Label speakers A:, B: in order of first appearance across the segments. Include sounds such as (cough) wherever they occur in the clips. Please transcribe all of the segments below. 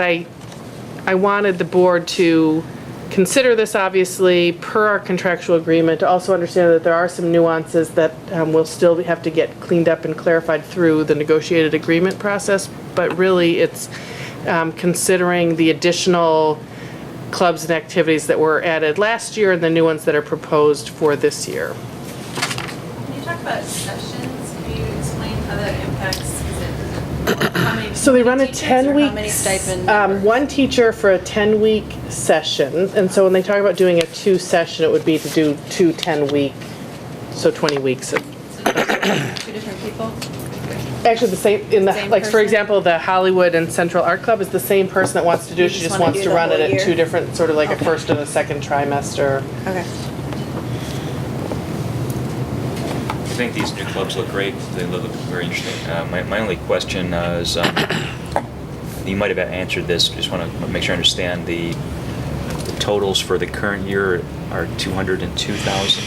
A: I, I wanted the board to consider this, obviously, per our contractual agreement, to also understand that there are some nuances that um, will still have to get cleaned up and clarified through the negotiated agreement process, but really, it's um, considering the additional clubs and activities that were added last year and the new ones that are proposed for this year.
B: Can you talk about sessions? Can you explain how that impacts? Is it- how many-
A: So they run a
B: teachers or how
A: 10 week.
B: many stipend
A: Um, one teacher for a 10 week session. And so when they talk about doing a two session, it would be to do two 10 week, so 20 weeks. of-
B: So those are Two different people?
A: Actually, the same, in the,
B: Same
A: like, for
B: person?
A: example, the Hollywood and Central Art Club is the same person that wants to do it.
C: You
A: She
C: just
A: just
C: wanna
A: wants
C: do
A: to
C: the
A: run it
C: whole
A: at
C: year?
A: two different, sort of like a first and a second trimester.
C: Okay.
D: I think these new clubs look great. They look very interesting. Uh, my, my only question uh, is, um, you might have answered this. Just want to make sure I understand the, the totals for the current year are two hundred and two thousand,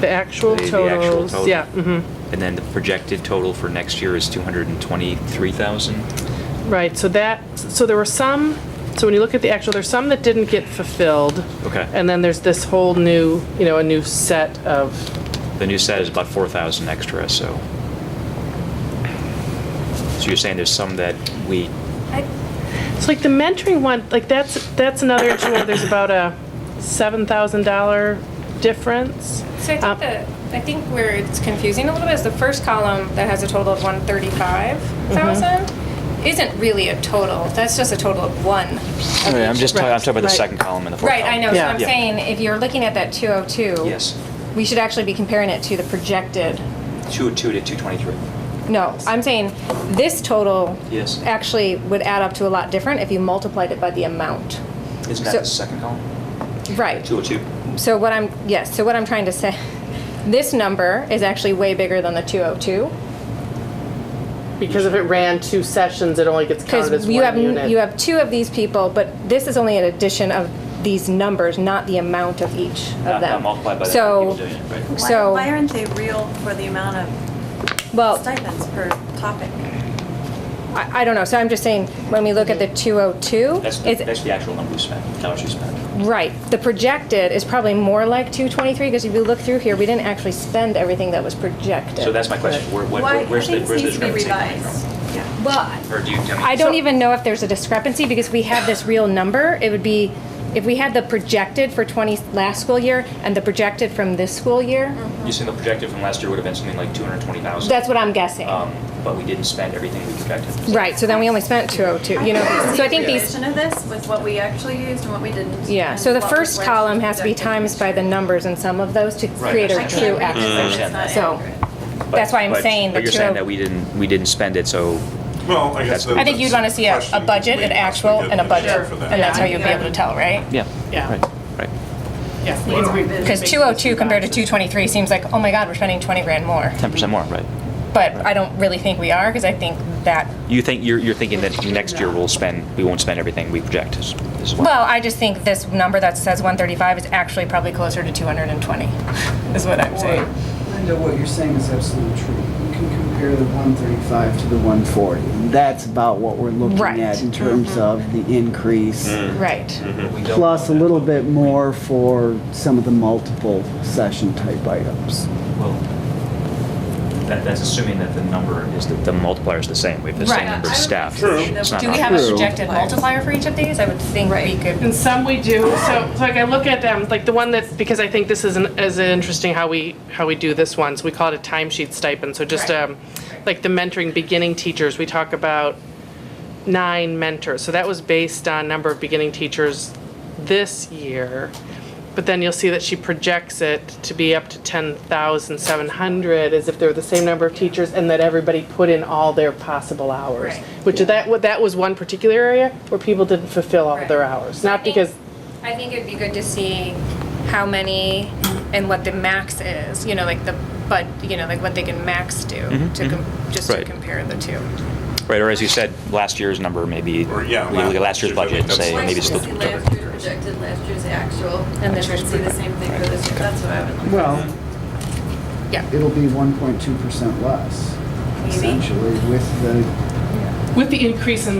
A: The actual
D: The- the actual
A: totals,
D: total.
A: yeah, mhm.
D: and then the projected total for next year is two hundred and twenty-three thousand.
A: Right, so that, so there were some, so when you look at the actual, there's some that didn't get fulfilled.
D: Okay.
A: And then there's this whole new, you know, a new set of,
D: The new set is about four thousand extra. So, so you're saying there's some that we
A: it's like the mentoring one, like that's, that's another issue where there's about a $7,000 difference.
E: So I
A: Um,
E: think the, I think where it's confusing a little bit is the first column that has a total of one thirty-five thousand isn't really a total, that's just a total of one. of
D: Oh, I'm
E: each.
D: just talking, I'm talking about the
A: Right.
D: second column and the fourth.
E: Right, I know, so
A: Yeah.
E: I'm
D: Yeah.
E: saying, if you're looking at that two oh two.
D: Yes.
E: We should actually be comparing it to the projected,
D: Two two to two twenty-three.
E: no, I'm saying this total.
D: Yes.
E: Actually would add up to a lot different if you multiplied it by the amount.
D: Isn't
E: So-
D: that the second column?
E: Right.
D: Two oh two.
E: So what I'm, yes, so what I'm trying to say, (laughs) this number is actually way bigger than the 202.
A: Because if it ran two sessions, it only gets counted as
E: Because you
A: one
E: have,
A: unit.
E: you have two of these people, but this is only an addition of these numbers, not the amount of each of
D: Not- not
E: them.
D: Uh, multiplied by the
E: So-
D: people doing it, right.
C: Why-
E: So- Oh.
C: Why aren't they real for the amount of
E: Well,
C: stipends per topic?
E: I, I don't know, so I'm just saying, when we look at the 202,
D: That's the,
E: it's,
D: that's the actual number we spent, dollars we spent.
E: right, the projected is probably more like 223, because if you look through here, we didn't actually spend everything that was projected.
D: So that's my question, where, what-
C: Why,
D: where's the,
C: things
D: where's
C: need
D: this
C: to be
D: revenue coming
C: revised.
D: from?
C: Yeah.
E: Well,
D: Or do you, I mean.
E: I don't even know if there's a discrepancy because we have this real number. It would be, if we had the projected for 20 last school year and the projected from this school year,
D: You said the projected from last year would have been something like two hundred and twenty thousand.
E: that's what I'm guessing.
D: Um, but we didn't spend everything we projected.
E: Right, so then we only spent 202, you know, so I think
C: the
E: these,
C: addition of this with what we actually used and what we didn't.
E: yeah,
C: and
E: so the
C: what was
E: first
C: where
E: column
C: we
E: has to be
C: projected.
E: times by the numbers in some of those to
D: Right,
E: create
D: that's
E: a
C: I
D: what
C: can't
E: true
C: read it,
D: I
E: average.
D: understand
C: it's not
D: that.
E: So-
C: accurate.
D: But-
E: that's why I'm
D: but-
E: saying the
D: But you're saying
E: 200
D: that we didn't, we didn't spend it, so
F: Well, I guess.
D: I
E: think you'd wanna see a- a
F: question,
E: budget,
F: we
E: an
F: possibly
E: actual,
F: did
E: and a
F: the
E: budget.
F: year for
E: And
F: that.
E: that's how you'd be able to tell, right?
D: yeah.
A: Yeah.
D: Right, right.
A: Yeah.
E: Because 202 compared to 223 seems like, oh my God, we're spending 20 grand more.
D: Ten percent more, right.
E: But I don't really think we are because I think that
D: You think, you're, you're thinking that next year we'll spend, we won't spend everything we project is, is what?
E: Well, I just think this number that says 135 is actually probably closer to 220, is what I'm saying.
G: Linda, what you're saying is absolutely true. You can compare the 135 to the 140. and That's about what we're looking
E: Right.
G: at in terms of the increase,
E: Mm. Right.
G: plus a little bit more for some of the multiple session type items.
D: Well, that, that's assuming that the number is, the, the multiplier is the same, we have the same
E: Right.
D: number of
C: I would
D: staff.
C: assume
D: It's
C: that
D: not
E: Do we
D: an
E: have a
G: True.
E: projected multiplier for each of these? I would think we
C: Right.
E: could.
A: And some we do, so, so like I look at them, like the one that, because I think this is an, is interesting how we, how we do this one, so we call it a timesheet stipend, so just,
E: Right.
A: um, like the mentoring beginning teachers, we talk about nine mentors, so that was based on number of beginning teachers this year. But then you'll see that she projects it to be up to ten thousand seven hundred, as if they're the same number of teachers, and that everybody put in all their possible hours.
E: Right.
A: Which that, wa- that was one particular area where people didn't fulfill all of their
E: Right.
A: hours, not because
E: I think it'd be good to see how many and what the max is, you know, like the, but, you know, like what they can max do, to com- just to
D: Right.
E: compare the two.
D: Right, or as you said, last year's number maybe,
F: Or, yeah,
D: we look at last year's
F: last
D: budget
F: year's, I
D: and say,
F: think
C: Why
D: maybe
C: should
D: it's
C: we
D: still.
C: see last year's projected, last year's actual,
E: And
C: and
E: this
C: then
E: year's
C: see the same thing for this year? That's what I would.
G: Well,
E: Yeah.
G: it'll be 1.2% less,
C: Maybe.
G: essentially, with the
A: With the increase in